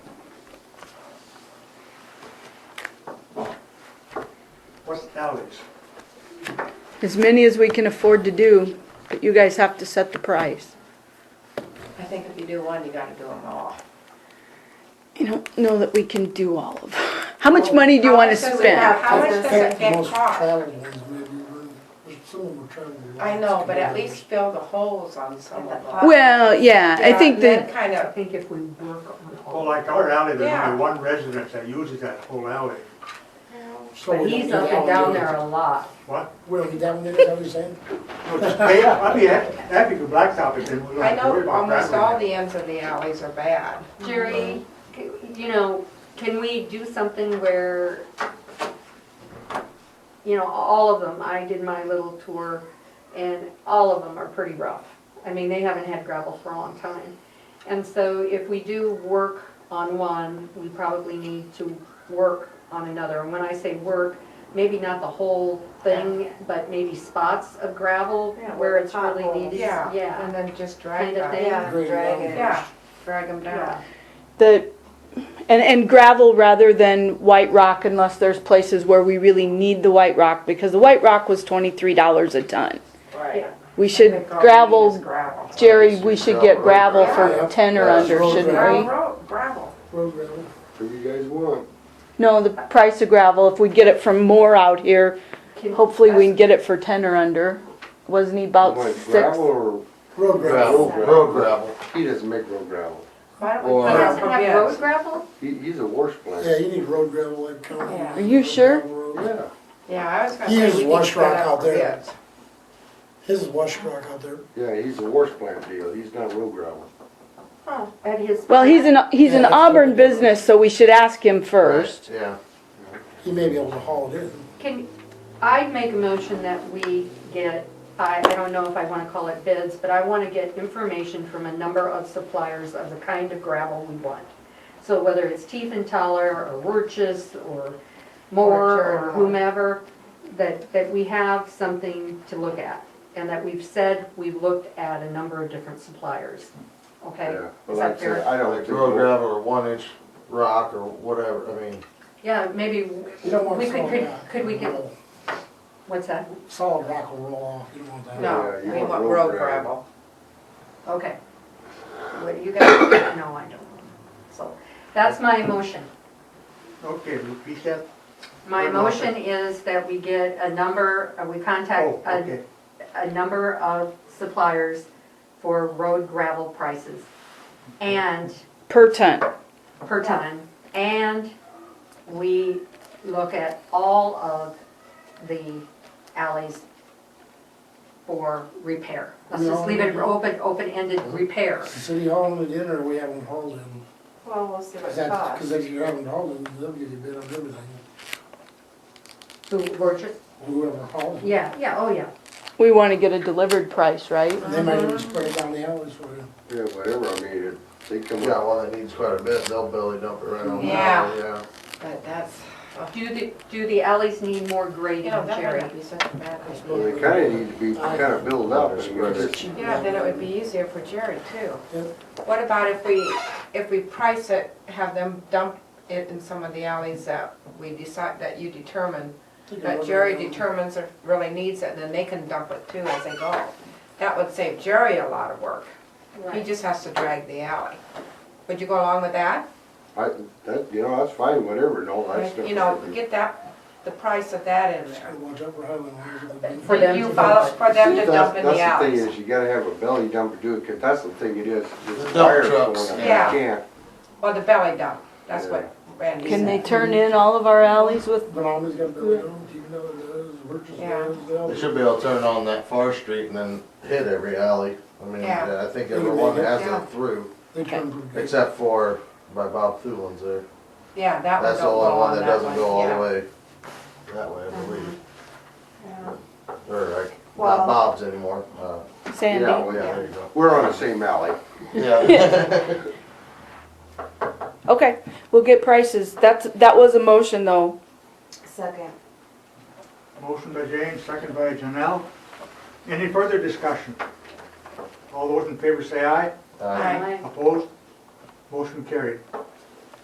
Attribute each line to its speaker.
Speaker 1: What's the salaries?
Speaker 2: As many as we can afford to do, but you guys have to set the price.
Speaker 3: I think if you do one, you gotta do them all.
Speaker 2: I don't know that we can do all of. How much money do you want to
Speaker 3: How much does it
Speaker 2: spend?
Speaker 3: have? How much
Speaker 4: I
Speaker 3: does
Speaker 4: think
Speaker 3: it
Speaker 4: the
Speaker 3: get
Speaker 4: most
Speaker 3: cost?
Speaker 4: challenging is maybe when, if someone were trying to.
Speaker 3: I know, but at least fill the holes on some of them.
Speaker 2: Well, yeah, I
Speaker 3: Yeah,
Speaker 2: think
Speaker 3: then
Speaker 2: that,
Speaker 3: Kind
Speaker 5: I
Speaker 3: of,
Speaker 5: think if we work on
Speaker 1: Well,
Speaker 5: all,
Speaker 1: like our alley, there's
Speaker 3: Yeah.
Speaker 1: only one resident that uses that whole alley.
Speaker 4: So
Speaker 6: But
Speaker 4: we
Speaker 6: he's
Speaker 4: don't
Speaker 6: up
Speaker 4: get
Speaker 6: and
Speaker 4: all
Speaker 6: down
Speaker 4: the-
Speaker 6: there a lot.
Speaker 1: What?
Speaker 4: Well, he down there, is that what you're saying?
Speaker 1: No, just pay, I'd be happy, happy to blacktop it, then we don't
Speaker 3: I
Speaker 1: have to worry
Speaker 3: know
Speaker 1: about that.
Speaker 3: almost all
Speaker 1: right
Speaker 3: the ends of the alleys are bad.
Speaker 6: Jerry, c- you know, can we do something where, you know, all of them, I did my little tour, and all of them are pretty rough. I mean, they haven't had gravel for a long time. And so if we do work on one, we probably need to work on another. And when I say work, maybe not the whole thing, but maybe spots of gravel
Speaker 7: Yeah,
Speaker 6: where
Speaker 7: with
Speaker 6: it's really
Speaker 7: potholes.
Speaker 6: needed.
Speaker 3: Yeah, and then just drag
Speaker 6: Kind
Speaker 3: them.
Speaker 6: of thing.
Speaker 7: Yeah,
Speaker 4: Great
Speaker 7: drag
Speaker 4: mountain.
Speaker 7: it.
Speaker 3: Yeah,
Speaker 7: drag them
Speaker 6: Yeah.
Speaker 7: down.
Speaker 2: the, and, and gravel rather than white rock unless there's places where we really need the white rock because the white rock was twenty-three dollars a ton.
Speaker 3: right.
Speaker 2: We
Speaker 3: I
Speaker 2: should
Speaker 3: think all we need is
Speaker 2: gravel,
Speaker 3: Gravel.
Speaker 2: Jerry, we should get gravel
Speaker 4: Yeah.
Speaker 2: for ten or
Speaker 4: Yeah.
Speaker 2: under, shouldn't
Speaker 3: Gravel,
Speaker 2: we?
Speaker 3: road- gravel.
Speaker 4: Road gravel.
Speaker 8: What do you guys want?
Speaker 2: No, the price of gravel, if we get it from Moore out here,
Speaker 6: Can-
Speaker 2: hopefully we can get it for ten or under. Wasn't he about
Speaker 8: Like
Speaker 2: Oh, six?
Speaker 8: gravel or?
Speaker 4: Road gravel.
Speaker 8: Road gravel. He doesn't make road gravel.
Speaker 3: Why don't
Speaker 8: Or-
Speaker 3: we
Speaker 6: He
Speaker 3: put
Speaker 6: doesn't
Speaker 3: up a
Speaker 6: have road
Speaker 3: bid?
Speaker 6: gravel?
Speaker 8: He, he's a wash
Speaker 4: Yeah,
Speaker 8: plant.
Speaker 4: you need road gravel like county.
Speaker 3: Yeah.
Speaker 2: Are you sure?
Speaker 8: Yeah.
Speaker 3: Yeah, I was gonna
Speaker 4: He
Speaker 3: say.
Speaker 4: uses
Speaker 3: we need
Speaker 4: wash
Speaker 3: to put
Speaker 4: rock
Speaker 3: up
Speaker 4: out there.
Speaker 3: bids.
Speaker 4: His is wash rock out there.
Speaker 8: Yeah, he's a wash plant deal. He's not road gravel.
Speaker 6: Oh, At his.
Speaker 2: Well, he's an, he's an
Speaker 4: Yeah, that's
Speaker 2: Auburn
Speaker 4: what we do.
Speaker 2: business, so we should ask him first.
Speaker 8: Yeah.
Speaker 4: He may be able to haul it in.
Speaker 6: Can, I'd make a motion that we get, I, I don't know if I wanna call it bids, but I wanna get information from a number of suppliers of the kind of gravel we want. So whether it's Tiefenthaler or Wurches or Moore or whomever, that, that we have something to look at. And that we've said we've looked at a number of different suppliers, okay?
Speaker 8: Yeah. But
Speaker 6: Is
Speaker 8: like I
Speaker 6: that
Speaker 8: said,
Speaker 6: fair?
Speaker 8: I don't
Speaker 9: Like
Speaker 8: think.
Speaker 9: road gravel or one inch rock or whatever, I mean,
Speaker 6: Yeah, maybe,
Speaker 4: You don't want
Speaker 6: we could,
Speaker 4: solid
Speaker 6: could,
Speaker 4: rock.
Speaker 6: could we get, what's that?
Speaker 4: Solid rock will roll off, you don't want that.
Speaker 3: No,
Speaker 8: Yeah, you
Speaker 3: we
Speaker 8: want
Speaker 3: want
Speaker 8: road
Speaker 3: road
Speaker 8: gravel.
Speaker 3: gravel.
Speaker 6: Okay. What you guys, no, I don't. So that's my motion.
Speaker 1: Okay, repeat that.
Speaker 6: My
Speaker 1: Your
Speaker 6: motion
Speaker 1: motion.
Speaker 6: is that we get a number, uh, we
Speaker 1: Oh,
Speaker 6: contact
Speaker 1: okay.
Speaker 6: a, a number of suppliers for road gravel prices and
Speaker 2: Per ton.
Speaker 6: per ton. And we look at all of the alleys for repair. Let's just leave it open, open-ended repair.
Speaker 4: City hauling it in or we haven't hauled in?
Speaker 3: Well, we'll see what
Speaker 4: Cause
Speaker 3: it
Speaker 4: that,
Speaker 3: costs.
Speaker 4: cause if you haven't hauled in, they'll give you a bid on everything,
Speaker 6: Who, Burgess?
Speaker 4: whoever hauled it.
Speaker 6: Yeah, yeah, oh yeah.
Speaker 2: We want to get a delivered price, right?
Speaker 4: And They might even spread it down the alleys for you.
Speaker 8: Yeah, whatever, I mean, it, they come
Speaker 9: you
Speaker 8: out.
Speaker 9: got one that needs quite a bit, they'll belly dump it right on.
Speaker 3: Yeah.
Speaker 9: Yeah.
Speaker 3: But that's,
Speaker 6: Do the, do the alleys need more grading,
Speaker 3: you know, that
Speaker 6: Jerry?
Speaker 3: might not be such a bad
Speaker 8: Well,
Speaker 3: idea.
Speaker 8: they kinda need to be, kinda built up and whether it's
Speaker 3: Yeah, then it would be easier for Jerry too.
Speaker 4: Yep.
Speaker 3: What about if we, if we price it, have them dump it in some of the alleys that we decide, that you determine,
Speaker 4: Take a
Speaker 3: that
Speaker 4: look
Speaker 3: Jerry
Speaker 4: at it.
Speaker 3: determines if really needs it, and then they can dump it too as they go. That would save Jerry a lot of work. He just has to drag the alley. Would you go along with that?
Speaker 8: I, that, you know, that's fine, whatever, no, that's.
Speaker 3: You know, get that, the price of that in there.
Speaker 4: Gotta watch out for highway lines with the big-
Speaker 6: For them
Speaker 3: You
Speaker 6: to
Speaker 3: follow,
Speaker 6: dump it.
Speaker 3: for them to
Speaker 8: See,
Speaker 3: dump in the
Speaker 8: That's the
Speaker 3: alleys.
Speaker 8: thing is, you gotta have a belly dump to do it, 'cause that's the thing it is.
Speaker 9: The
Speaker 8: It's
Speaker 9: dump
Speaker 8: fire
Speaker 9: trucks.
Speaker 8: going on. You
Speaker 3: Yeah.
Speaker 8: can't.
Speaker 3: Or the belly dump, that's what Randy
Speaker 2: Can they
Speaker 3: said.
Speaker 2: turn in all of our alleys with,
Speaker 4: Bonomi's got a building, even though it does, Wirtz
Speaker 3: Yeah.
Speaker 4: does, they all-
Speaker 9: They should be able to turn on that far street and then hit every alley. I mean,
Speaker 3: Yeah.
Speaker 9: I think everyone has
Speaker 3: Yeah.
Speaker 9: it through,
Speaker 4: They turn pretty good.
Speaker 9: except for by Bob Thulin's there.
Speaker 3: Yeah, that one
Speaker 9: That's
Speaker 3: don't
Speaker 9: the
Speaker 3: go
Speaker 9: only one
Speaker 3: on
Speaker 9: that
Speaker 3: that
Speaker 9: doesn't
Speaker 3: one,
Speaker 9: go all
Speaker 3: yeah. Uh-huh.
Speaker 9: the way, that way, I believe. Or like,
Speaker 7: Well-
Speaker 9: not Bob's anymore, uh,
Speaker 2: Sandy?
Speaker 8: Yeah, well,
Speaker 9: yeah,
Speaker 8: yeah.
Speaker 9: there you go.
Speaker 8: We're on the same alley.
Speaker 9: Yeah.
Speaker 2: Okay, we'll get prices. That's, that was a motion though.
Speaker 7: Second.
Speaker 1: Motion by Jane, second by Janelle. Any further discussion? All those in favor say aye.
Speaker 9: Uh,
Speaker 3: Aye.
Speaker 6: Aye.
Speaker 1: Opposed? Motion carried.